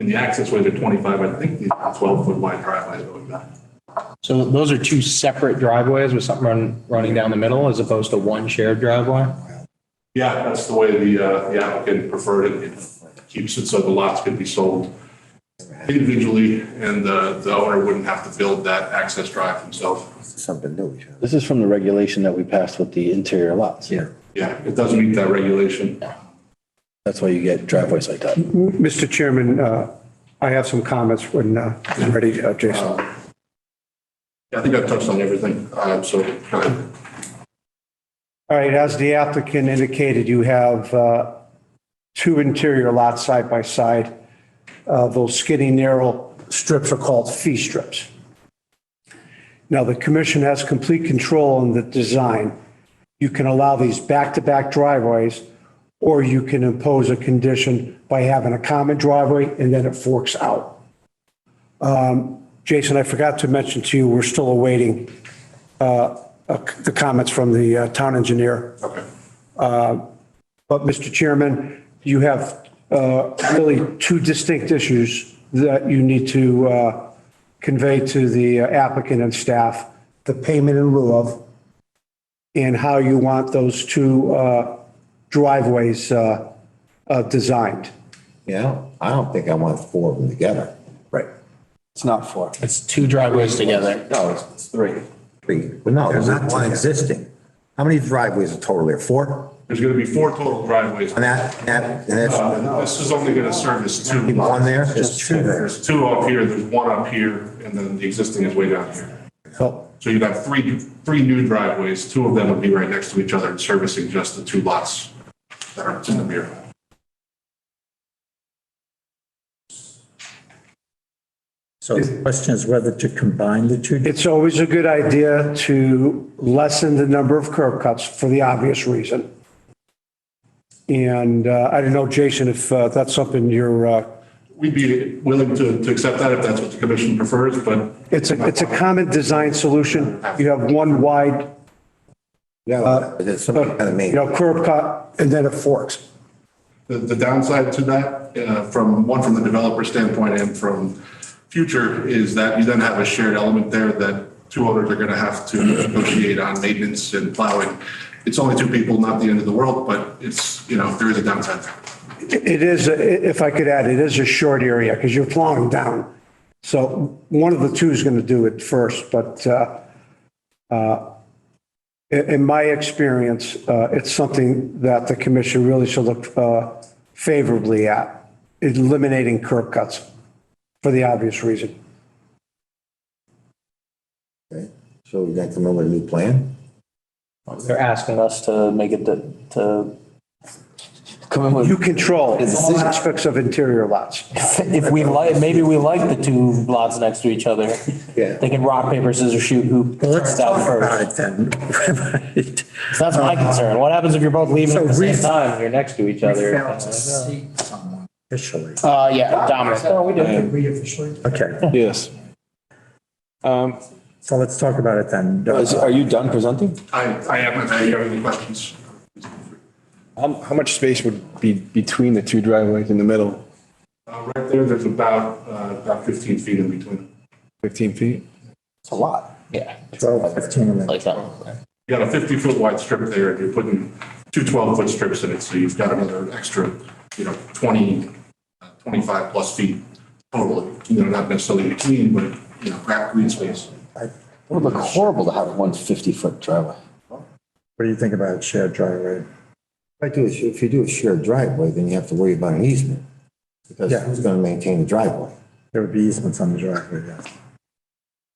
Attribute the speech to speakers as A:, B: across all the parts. A: And the access ways are 25, I think these 12-foot wide driveways going back.
B: So those are two separate driveways with something run- running down the middle as opposed to one shared driveway?
A: Yeah, that's the way the uh, the applicant preferred it. It keeps it so the lots could be sold individually and the the owner wouldn't have to build that access drive himself.
C: something new.
D: This is from the regulation that we passed with the interior lots. Yeah.
A: Yeah, it doesn't meet that regulation.
D: That's why you get driveways like that.
E: Mr. Chairman, uh, I have some comments when uh, I'm ready, uh, Jason.
A: I think I've touched on everything, uh, so go ahead.
E: All right, as the applicant indicated, you have uh, two interior lots side by side. Uh, Those skinny narrow strips are called fee strips. Now, the commission has complete control in the design. You can allow these back-to-back driveways, or you can impose a condition by having a common driveway and then it forks out. Um, Jason, I forgot to mention to you, we're still awaiting uh, the comments from the uh, town engineer. Uh,
A: Okay.
E: But, Mr. Chairman, you have uh, really two distinct issues that you need to uh, convey to the uh, applicant and staff, the payment in lieu of, and how you want those two uh, driveways uh, uh, designed.
C: Yeah, I don't- I don't think I want four of them together. Right.
E: It's not four.
B: It's two driveways together.
C: No, it's- it's three. Three, well, no, there's not one existing. How many driveways are total there? Four
A: There's going to be four total driveways.
C: on that, and that, and that's
A: Uh, This is only going to service two
C: one
A: lots.
C: there? There's two there.
A: There's two up here, there's one up here, and then the existing is way down here.
C: Oh.
E: So
A: So you'd have three, three new driveways, two of them would be right next to each other and servicing just the two lots that are in the mirror.
F: So the question is whether to combine the two.
E: It's always a good idea to lessen the number of curb cuts for the obvious reason. And uh, I don't know, Jason, if uh, that's something you're, uh,
A: We'd be willing to, to accept that if that's what the commission prefers, but
E: it's a, it's a common design solution. You have one wide, uh,
C: No, there's some kind of
E: you
C: main.
E: know, curb cut and then it forks.
A: the, the downside to that, uh, from, one from the developer standpoint and from future, is that you then have a shared element there that two owners are gonna have to negotiate on maintenance and plowing. It's only two people, not the end of the world, but it's, you know, there is a downside there.
E: It is, a- if I could add, it is a short area because you're plowing down. So one of the two is going to do it first, but uh, uh, in in my experience, uh, it's something that the commission really should look uh, favorably at, eliminating curb cuts for the obvious reason.
C: So we got to come up with a new plan?
B: They're asking us to make it to- to come in
E: You
B: with,
E: control all aspects of interior lots.
B: if we like, maybe we like the two lots next to each other.
C: Yeah.
B: They can rock, paper, scissors, shoot who
F: Well, let's
B: gets out
F: talk
B: first.
F: about it then. Right.
B: So That's my concern. What happens if you're both leaving at the
F: So
B: same
F: ref-
B: time and you're next to each other?
F: Fail to seat someone Officially.
B: Uh, yeah, Dominic.
F: Okay,
G: Yes. Um,
F: so let's talk about it then.
G: is- Are you done presenting?
A: I, I have, if you have any questions. Uh,
G: How how much space would be between the two driveways in the middle?
A: Uh, Right there, there's about, uh, about 15 feet in between. them.
G: 15 feet?
D: It's a lot.
B: Yeah,
F: 12, 15 minutes.
B: like that.
A: You got a 50-foot wide strip there, and you're putting two 12-foot strips in it, so you've got another extra, you know, 20, uh, 25-plus feet total, you know, not necessarily between, but, you know, grab green space.
D: It would look horrible to have one 50-foot driveway.
F: What do you think about shared driveway?
C: If I do, a sh- if you do a shared driveway, then you have to worry about an easement. Because
F: Yeah.
C: who's gonna maintain the driveway?
F: There would be easements on the driveway, yes.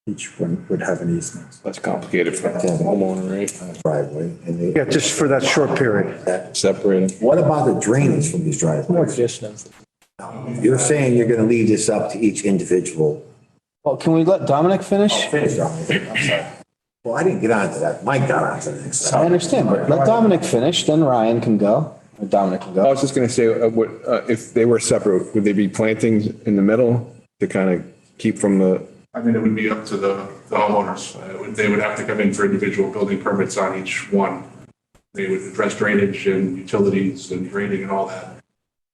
F: Each one would have an easement.
G: That's complicated for
C: Yeah.
G: homeowner, right?
C: Driveway and they.
E: Yeah, just for that short period.
G: Separate them.
C: What about the drainage from these driveways? You're saying you're gonna leave this up to each individual.
D: Well, can we let Dominic finish?
C: Finish on it. I'm sorry. Well, I didn't get onto that. Mike got onto the next.
D: I understand, but let Dominic finish, then Ryan can go, or Dominic can
G: I
D: go.
G: was just going to say, uh, what, uh, if they were separate, would they be plantings in the middle to kind of keep from the,
A: I mean, it would be up to the the homeowners. Uh, it would- They would have to come in for individual building permits on each one. They would address drainage and utilities and grading and all that.